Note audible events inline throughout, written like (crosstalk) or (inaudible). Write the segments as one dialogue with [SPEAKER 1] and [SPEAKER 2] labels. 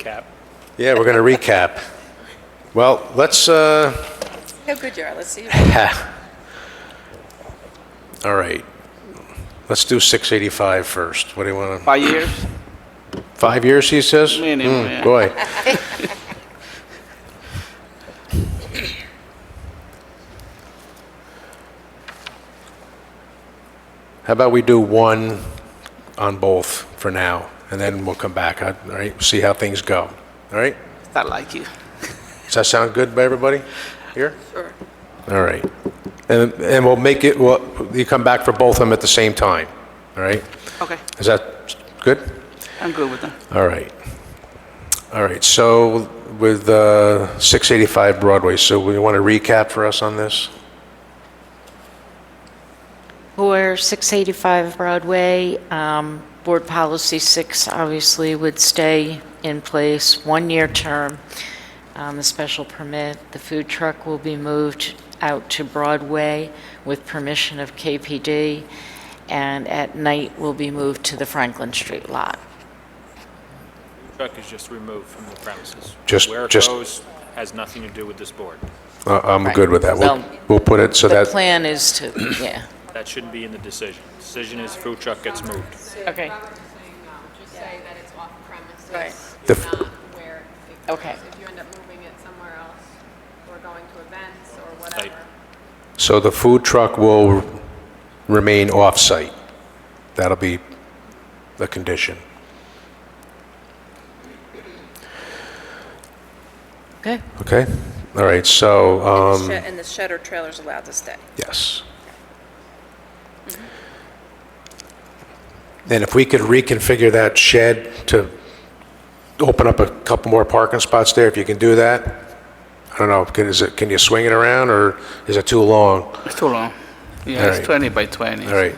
[SPEAKER 1] Cap.
[SPEAKER 2] Yeah, we're going to recap. Well, let's, uh, (laughs)
[SPEAKER 3] How good you are, let's see.
[SPEAKER 2] all right. Let's do 685 first. What do you want to,
[SPEAKER 4] Five years?
[SPEAKER 2] five years, he says?
[SPEAKER 4] Minimum,
[SPEAKER 2] Hmm,
[SPEAKER 4] yeah.
[SPEAKER 2] Boy. How about we do one on both for now, and then we'll come back, all right? See how things go, all right?
[SPEAKER 4] I like you.
[SPEAKER 2] Does that sound good by everybody here?
[SPEAKER 3] Sure.
[SPEAKER 2] All right. And, and we'll make it, well, you come back for both of them at the same time, all right?
[SPEAKER 4] Okay,
[SPEAKER 2] Is that good?
[SPEAKER 4] I'm good with them.
[SPEAKER 2] All right. All right, so with uh, 685 Broadway, so we want to recap for us on this?
[SPEAKER 5] For 685 Broadway, um, Board Policy 6 obviously would stay in place, one-year term. Um, The special permit, the food truck will be moved out to Broadway with permission of KPD, and at night will be moved to the Franklin Street lot.
[SPEAKER 1] Truck is just removed from the premises.
[SPEAKER 2] Just-
[SPEAKER 1] Where it
[SPEAKER 2] just-
[SPEAKER 1] goes has nothing to do with this board.
[SPEAKER 2] Uh, I'm good with that. We'll,
[SPEAKER 5] Right. So-
[SPEAKER 2] we'll put it so
[SPEAKER 5] The
[SPEAKER 2] that,
[SPEAKER 5] plan is to, yeah.
[SPEAKER 1] That shouldn't be in the decision. Decision is food truck gets moved.
[SPEAKER 5] Okay.
[SPEAKER 6] Robert's saying no, just say that it's off premises.
[SPEAKER 3] Right.
[SPEAKER 2] The f-
[SPEAKER 6] Not where it goes.
[SPEAKER 5] Okay.
[SPEAKER 6] If you end up moving it somewhere else, or going to events or
[SPEAKER 1] Right.
[SPEAKER 6] whatever.
[SPEAKER 2] so the food truck will remain off-site. That'll be the condition.
[SPEAKER 5] Okay.
[SPEAKER 2] Okay? All right, so, um,
[SPEAKER 3] Shed- And the shed or trailer's allowed to stay.
[SPEAKER 2] yes. And if we could reconfigure that shed to open up a couple more parking spots there, if you can do that? I don't know, can, is it, can you swing it around, or is it too long?
[SPEAKER 4] It's too long. Yeah,
[SPEAKER 2] Alright.
[SPEAKER 4] it's 20 by 20.
[SPEAKER 2] All right.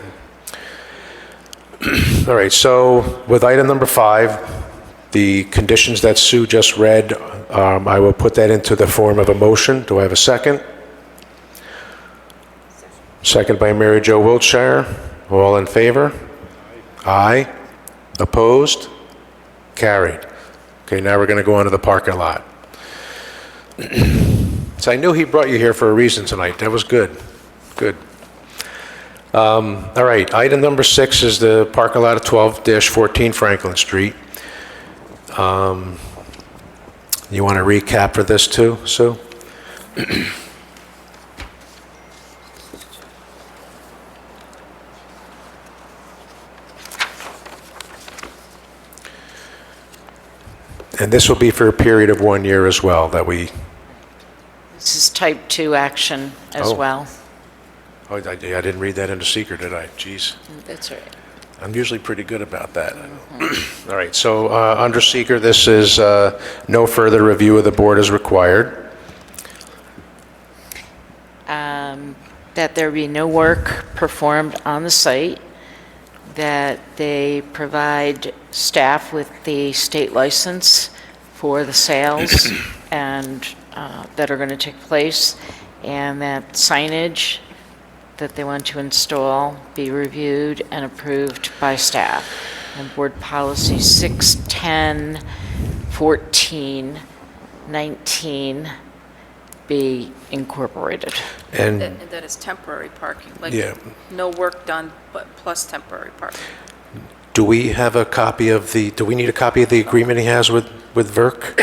[SPEAKER 2] All right, (clears throat) so with item number five, the conditions that Sue just read, um, I will put that into the form of a motion. Do I have a second? Second by Mary Jo Wiltshire. All in favor? Aye. Opposed? Carried. Okay, now we're going to go on to the parking lot. (clears throat) So I knew he brought you here for a reason tonight. That was good. Good. All right, item number six is the parking lot at 12-14 Franklin Street. Um, You want to recap for this too, Sue? And this will be for a period of one year as well, that we,
[SPEAKER 5] This is type 2 action as
[SPEAKER 2] Oh.
[SPEAKER 5] well.
[SPEAKER 2] oh, I I didn't read that into secret, did I? Jeez.
[SPEAKER 5] That's right.
[SPEAKER 2] I'm usually pretty good about that. (clears throat) All right, so uh, under seeker, this is uh, no further review of the board is required.
[SPEAKER 5] um, that there be no work performed on the site, that they provide staff with the state license for the sales and, uh, that are going to take place, and that signage that they want to install be reviewed and approved by staff. And Board Policy 610, 14, 19 be incorporated.
[SPEAKER 2] And
[SPEAKER 3] And that is temporary parking, like,
[SPEAKER 2] Yeah.
[SPEAKER 3] no work done, but plus temporary parking.
[SPEAKER 2] do we have a copy of the, do we need a copy of the agreement he has with, with Verk?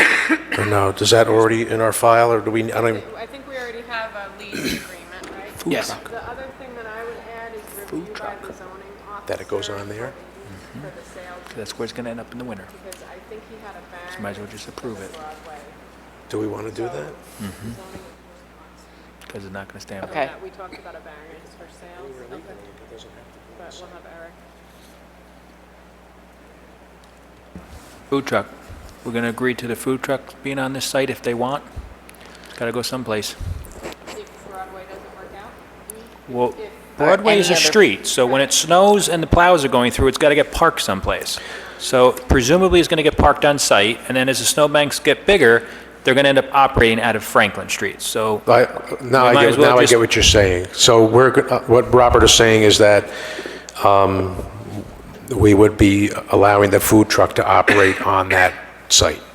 [SPEAKER 2] Or no, is that already in our file, or do we, I don't, even-
[SPEAKER 6] I think we already have a
[SPEAKER 2] (clears throat)
[SPEAKER 6] lease agreement, right?
[SPEAKER 4] Yes.
[SPEAKER 6] The other thing that I would add is review by the zoning officer.
[SPEAKER 2] That it goes on
[SPEAKER 6] what
[SPEAKER 2] there? Mm-hmm.
[SPEAKER 6] they use For the sale,
[SPEAKER 1] That's where it's going to end up in the winter.
[SPEAKER 6] because I think he had a variance.
[SPEAKER 1] might as well just
[SPEAKER 6] for the
[SPEAKER 1] approve it.
[SPEAKER 6] Broadway
[SPEAKER 2] do we want to do that? Mm-hmm.
[SPEAKER 6] zoning.
[SPEAKER 1] Because it's not going to stand.
[SPEAKER 5] Okay.
[SPEAKER 6] Yeah, We talked about a variance for sales, okay, but we'll have Eric.
[SPEAKER 1] Food truck. We're going to agree to the food truck being on this site if they want. It's got to go someplace.
[SPEAKER 6] If Broadway doesn't work out,
[SPEAKER 1] Well, Broadway is a
[SPEAKER 5] any other-
[SPEAKER 1] street, so when it snows and the plows are going through, it's got to get parked someplace. So presumably, it's going to get parked on site, and then as the snowbanks get bigger, they're going to end up operating out of Franklin Street. So
[SPEAKER 2] I- Now
[SPEAKER 1] We might
[SPEAKER 2] I
[SPEAKER 1] as
[SPEAKER 2] get,
[SPEAKER 1] well
[SPEAKER 2] now I
[SPEAKER 1] just-
[SPEAKER 2] get what you're saying. So we're, go- uh, what Robert is saying is that um, we would be allowing the food truck to operate on that site.